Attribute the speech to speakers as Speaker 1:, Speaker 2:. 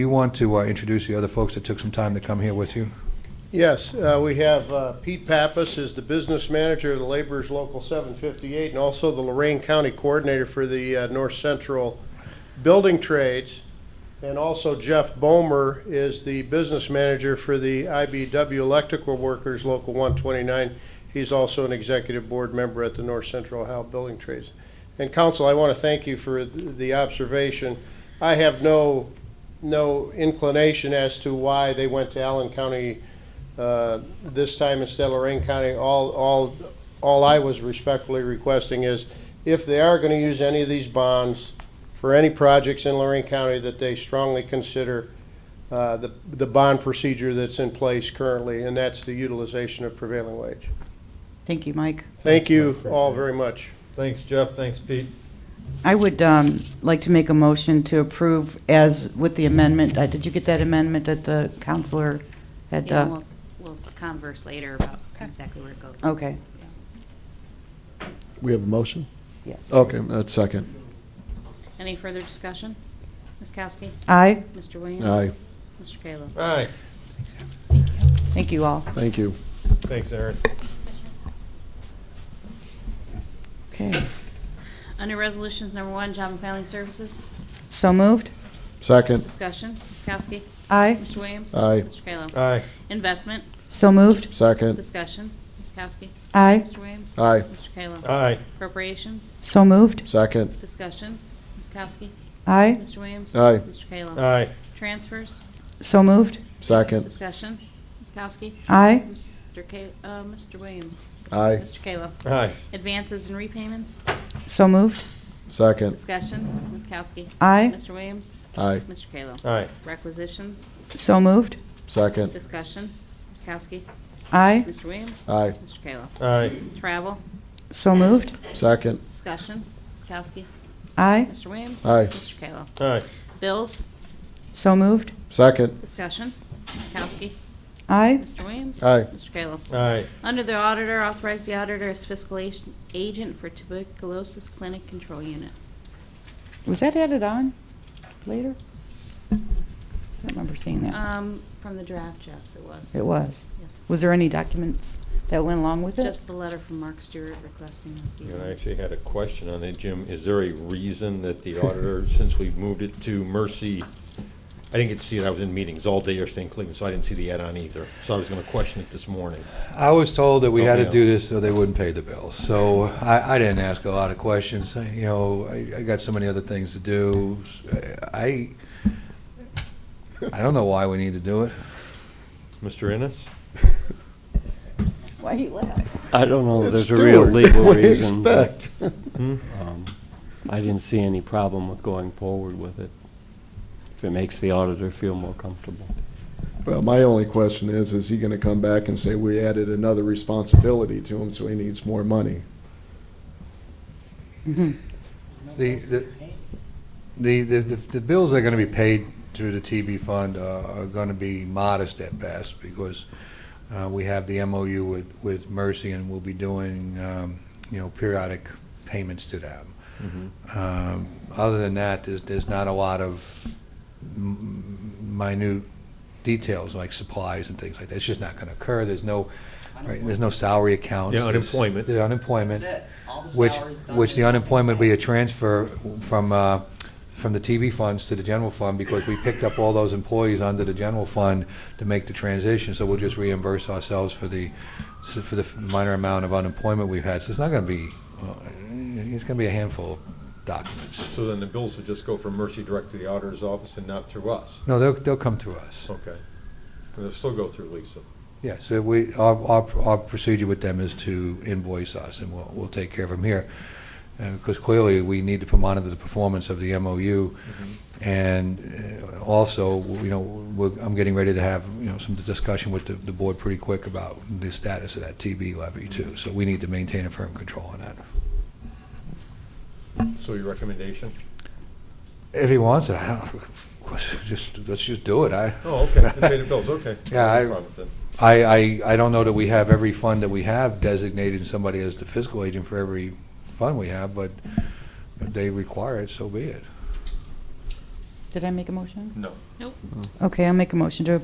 Speaker 1: You want to uh, introduce the other folks that took some time to come here with you?
Speaker 2: Yes, uh, we have uh, Pete Pappas is the business manager of the Laborers Local 758 and also the Lorraine County Coordinator for the uh, North Central Building Trades. And also Jeff Bomer is the business manager for the IBW Electrical Workers Local 129. He's also an executive board member at the North Central Ohio Building Trades. And council, I want to thank you for th- the observation. I have no, no inclination as to why they went to Allen County uh, this time instead of Lorraine County, all, all, all I was respectfully requesting is if they are gonna use any of these bonds for any projects in Lorraine County, that they strongly consider uh, the, the bond procedure that's in place currently, and that's the utilization of prevailing wage.
Speaker 3: Thank you, Mike.
Speaker 2: Thank you all very much.
Speaker 4: Thanks, Jeff. Thanks, Pete.
Speaker 3: I would um, like to make a motion to approve as with the amendment, uh, did you get that amendment that the counselor had?
Speaker 5: Yeah,
Speaker 3: uh,
Speaker 5: we'll, we'll converse later about exactly where it goes.
Speaker 3: Okay,
Speaker 6: We have a motion?
Speaker 3: yes.
Speaker 6: Okay, that's second.
Speaker 5: Any further discussion? Ms. Kowski?
Speaker 3: Aye,
Speaker 5: Mr. Williams?
Speaker 6: Aye,
Speaker 5: Mr. Kayla?
Speaker 4: Aye.
Speaker 3: thank you all.
Speaker 6: thank you.
Speaker 4: Thanks, Aaron.
Speaker 3: Okay,
Speaker 5: Under Resolutions Number One, Job and Family Services,
Speaker 3: so moved?
Speaker 6: Second,
Speaker 5: discussion. Ms. Kowski?
Speaker 3: Aye,
Speaker 5: Mr. Williams?
Speaker 6: Aye.
Speaker 5: Mr. Kayla?
Speaker 4: Aye.
Speaker 5: Investment,
Speaker 3: so moved?
Speaker 6: second,
Speaker 5: discussion. Ms. Kowski?
Speaker 3: Aye,
Speaker 5: Mr. Williams?
Speaker 6: Aye.
Speaker 5: Mr. Kayla?
Speaker 4: Aye.
Speaker 5: Appropriations,
Speaker 3: so moved?
Speaker 6: second,
Speaker 5: discussion. Ms. Kowski?
Speaker 3: Aye,
Speaker 5: Mr. Williams?
Speaker 6: Aye.
Speaker 5: Mr. Kayla?
Speaker 4: Aye.
Speaker 5: Transfers,
Speaker 3: so moved?
Speaker 6: second,
Speaker 5: discussion. Ms. Kowski?
Speaker 3: Aye,
Speaker 5: Mr. Kay, uh, Mr. Williams?
Speaker 6: aye,
Speaker 5: Mr. Kayla?
Speaker 4: Aye.
Speaker 5: Advances and repayments,
Speaker 3: so moved?
Speaker 6: second,
Speaker 5: discussion. Ms. Kowski?
Speaker 3: Aye,
Speaker 5: Mr. Williams?
Speaker 6: aye,
Speaker 5: Mr. Kayla?
Speaker 4: Aye.
Speaker 5: Requisitions,
Speaker 3: so moved?
Speaker 6: second,
Speaker 5: discussion. Ms. Kowski?
Speaker 3: Aye,
Speaker 5: Mr. Williams?
Speaker 6: aye,
Speaker 5: Mr. Kayla?
Speaker 4: Aye.
Speaker 5: Travel,
Speaker 3: so moved?
Speaker 6: second,
Speaker 5: discussion. Ms. Kowski?
Speaker 3: Aye,
Speaker 5: Mr. Williams?
Speaker 6: Aye.
Speaker 5: Mr. Kayla?
Speaker 4: Aye.
Speaker 5: Bills,
Speaker 3: so moved?
Speaker 6: second,
Speaker 5: discussion. Ms. Kowski?
Speaker 3: Aye,
Speaker 5: Mr. Williams?
Speaker 6: Aye.
Speaker 5: Mr. Kayla?
Speaker 4: Aye.
Speaker 5: Under the auditor, authorize the auditor as fiscal ag- agent for tuberculosis clinic control unit.
Speaker 3: was that added on later? I don't remember seeing that.
Speaker 5: Um, from the draft, yes, it was.
Speaker 3: It was.
Speaker 5: Yes.
Speaker 3: Was there any documents that went along with it?
Speaker 5: Just the letter from Mark Stewart requesting this be.
Speaker 4: You know,
Speaker 5: done.
Speaker 4: I actually had a question on that, Jim. Is there a reason that the auditor, since we've moved it to Mercy, I didn't get to see it, I was in meetings all day yesterday in Cleveland, so I didn't see the add-on either. So I was going to question it this morning.
Speaker 1: I was told that we had to
Speaker 4: Oh, yeah.
Speaker 1: do this so they wouldn't pay the bills. So I, I didn't ask a lot of questions, you know, I, I got so many other things to do. I, I don't know why we need to do it.
Speaker 4: Mr. Ennis?
Speaker 3: Why you laugh?
Speaker 7: I don't know, that
Speaker 6: It's
Speaker 7: there's a real
Speaker 6: Stewart.
Speaker 7: legal
Speaker 6: What do you
Speaker 7: reason, but
Speaker 6: expect?
Speaker 7: um, I didn't see any problem with going forward with it, if it makes the auditor feel more comfortable.
Speaker 6: Well, my only question is, is he gonna come back and say, we added another responsibility to him, so he needs more money?
Speaker 1: The, the, the, the, the bills that are gonna be paid through the TB fund uh, are gonna be modest at best, because, uh, we have the MOU with, with Mercy, and we'll be doing, um, you know, periodic payments to them.
Speaker 4: Mm-hmm.
Speaker 1: Um, other than that, there's, there's not a lot of m- minute details, like supplies and things like that, it's just not gonna occur, there's no, right, there's no salary accounts.
Speaker 4: Yeah,
Speaker 1: There's-
Speaker 4: unemployment.
Speaker 1: There's unemployment.
Speaker 8: All the
Speaker 1: Which,
Speaker 8: salaries done
Speaker 1: which the
Speaker 8: in-
Speaker 1: unemployment will be a transfer from, uh, from the TV funds to the general fund, because we picked up all those employees under the general fund to make the transition, so we'll just reimburse ourselves for the, for the minor amount of unemployment we've had. So it's not gonna be, uh, it's gonna be a handful of documents.
Speaker 4: So then the bills would just go from Mercy direct to the auditor's office and not through us?
Speaker 1: No, they'll, they'll come to us.
Speaker 4: Okay. And they'll still go through Lisa?
Speaker 1: Yeah, so we, our, our, our procedure with them is to invoice us, and we'll, we'll take care of them here. Because clearly, we need to monitor the performance of the MOU, and uh, also, you know, we're, I'm getting ready to have, you know, some discussion with the, the board pretty quick about the status of that TB levy too. So we need to maintain a firm control on that.
Speaker 4: So your recommendation?
Speaker 1: If he wants it, I don't, just, let's just do it. I,
Speaker 4: Oh, okay, to pay the bills, okay.
Speaker 1: Yeah,
Speaker 4: No
Speaker 1: I-
Speaker 4: problem then.
Speaker 1: I, I, I don't know that we have every fund that we have designated somebody as the fiscal agent for every fund we have, but if they require it, so be it.
Speaker 3: Did I make a motion?
Speaker 4: No.
Speaker 5: Nope.
Speaker 3: Okay, I'll make a motion to